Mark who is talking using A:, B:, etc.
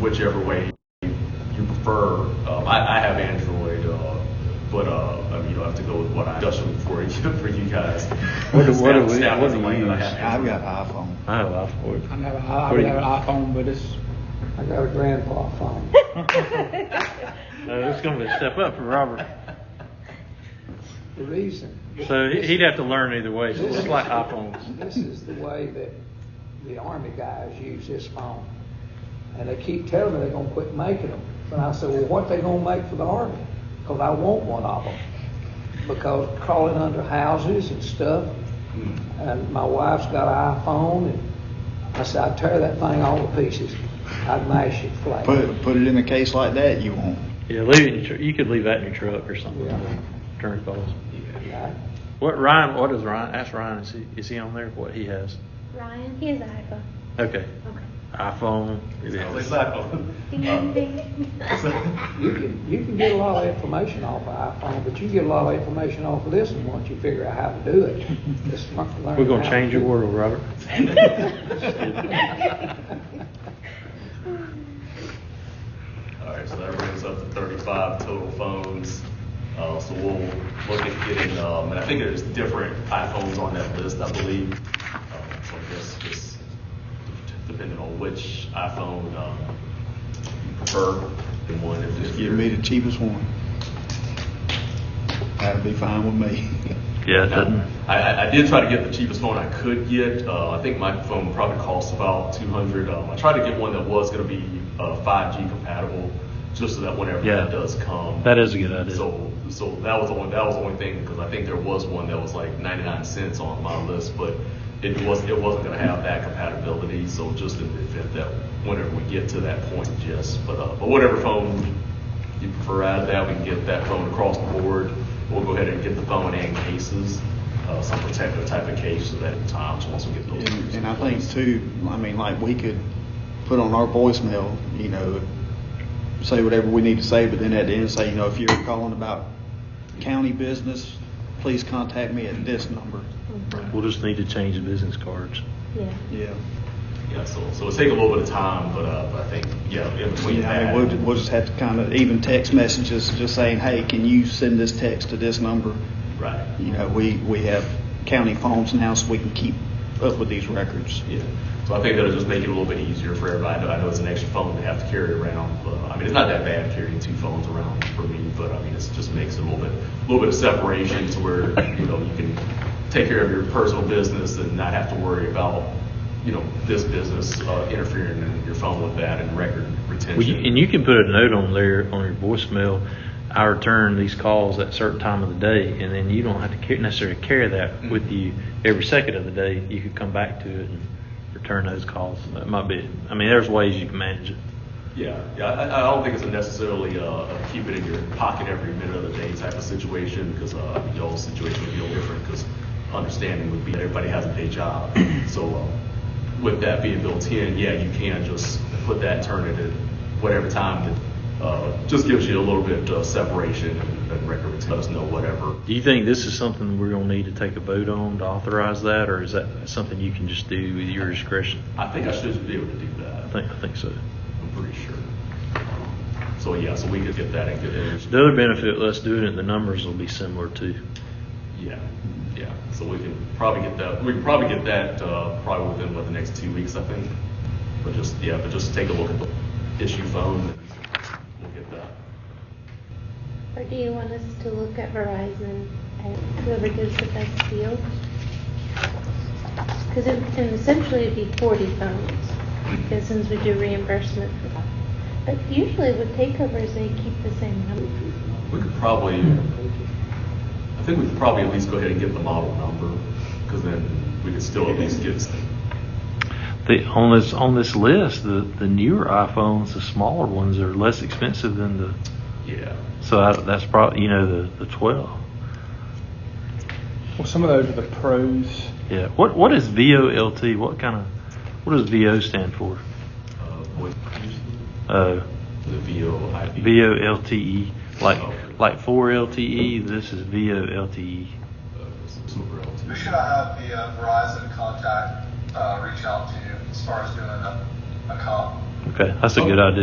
A: whichever way you you prefer. Um, I, I have Android, uh, but uh, I mean, you'll have to go with what I just for you for you guys.
B: What do- what do we-
A: Snap
B: what
A: is the
B: do
A: one
B: you
A: that I
B: use?
A: have
C: I've
A: Android.
C: got iPhone.
B: I have an iPhone.
D: I have, a- I
B: What
D: I
B: do you-
D: have an iPhone, but it's,
E: I got a grandpa phone.
B: Uh, it's going to be a step up for Robert.
E: The reason,
B: So he- he'd have to learn either way. So it's like iPhones.
E: this is the way that the army guys use this phone. And they keep telling me they're gonna quit making them. And I said, well, what they gonna make for the army? Cause I want one of them. Because crawling under houses and stuff, and my wife's got an iPhone, and I said, I'd tear that thing all to pieces. I'd mash it flat.
C: Put it, put it in a case like that, you won't.
B: Yeah, leave it in your, tr- you could leave that in your truck or something.
E: Yeah.
B: Turn calls.
E: Right?
B: What Ryan? What does Ryan? Ask Ryan. Is he is he on there? What he has?
F: Ryan, he has an iPhone.
B: Okay.
F: Okay.
B: iPhone.
A: It's not- it's not-
F: Ding,
A: uh,
F: ding, ding.
A: Um,
E: You can, you can get a lot of information off of iPhone, but you get a lot of information off of this one once you figure out how to do it. Just learn how
B: We're gonna
E: to
B: change
E: do
B: your
E: it.
B: world, Robert.
A: All right, so that brings up to 35 total phones. Uh, So we'll look at getting, um, and I think there's different iPhones on that list, I believe. Um, So I guess just depending on which iPhone um, you prefer, and one if
C: Just
A: if
C: give
A: you're.
C: me the cheapest one. That'd be fine with me.
B: Yeah, it
A: I, I- I did try to get the cheapest phone I could get. Uh, I think my phone probably costs about 200. Um, I tried to get one that was going to be uh, 5G compatible, just so that whenever
B: Yeah.
A: that does come,
B: That is a good idea.
A: So, so that was the only that was the only thing because I think there was one that was like 99 cents on my list, but it was it wasn't going to have that compatibility. So just in the event that whenever we get to that point, yes. But uh, but whatever phone you prefer out of that, we can get that phone across the board. We'll go ahead and get the phone and cases, uh, some protective type of case, so that at times once we get those.
C: And, and I think too, I mean, like we could put on our voicemail, you know, say whatever we need to say, but then at the end say, you know, if you're calling about county business, please contact me at this number.
B: We'll just need to change the business cards.
F: Yeah.
C: Yeah.
A: Yeah, so so it'll take a little bit of time, but uh, but I think yeah, in between
C: Yeah, I
A: that.
C: mean, we'll, ju- we'll just have to kind of, even text messages, just saying, hey, can you send this text to this number?
A: right.
C: You know, we, we have county phones now, so we can keep up with these records.
A: Yeah, so I think that'll just make it a little bit easier for everybody. I know, I know it's an extra phone they have to carry around, but I mean, it's not that bad carrying two phones around for me, but I mean, it just makes it a little bit, a little bit of separation to where, you know, you can take care of your personal business and not have to worry about, you know, this business uh, interfering in your phone with that and record retention.
B: Well, you, and you can put a note on there on your voicemail. I return these calls at certain time of the day, and then you don't have to ca- necessarily carry that with you every second of the day. You could come back to it and return those calls. That might be. I mean, there's ways you can manage it.
A: Yeah, yeah, I, I don't think it's a necessarily uh, a keep it in your pocket every minute of the day type of situation because uh, y'all's situation would be a little different because understanding would be that everybody has a day job. So uh, with that being built in, yeah, you can just put that, turn it at whatever time that uh, just gives you a little bit of separation and, and record let us know whatever.
B: Do you think this is something we're gonna need to take a vote on to authorize that, or is that something you can just do with your discretion?
A: I think I should be able to do that.
B: I think I think so.
A: I'm pretty sure. So yeah, so we could get that and get it.
B: The other benefit of us doing it, the numbers will be similar too.
A: Yeah, yeah. So we can probably get that, we can probably get that, uh, probably within, what, the next two weeks, I think. But just, yeah, but just take a look at the issue phone, and we'll get that.
F: Or do you want us to look at Verizon and whoever gives the best deal? Because it, and essentially it'd be 40 phones, because since we do reimbursement for that. But usually with takeovers, they keep the same number.
A: We could probably, I think we could probably at least go ahead and get the model number, because then we could still at least get,
B: The, on this on this list, the, the newer iPhones, the smaller ones, are less expensive than the.
A: yeah.
B: So I, that's probably you know the, the twelve.
D: well, some of those are the pros.
B: Yeah. What what is VOLT? What kind of what does VO stand for?
A: Uh, what,
B: Uh,
A: the VOIP.
B: VOLTE. Like
A: Oh.
B: E. like four LTE. This is VOLTE.
A: Uh, Silver LT.
G: Who should I have the uh, Verizon contact uh, reach out to as far as doing a, a comp?
B: Okay, that's a good idea.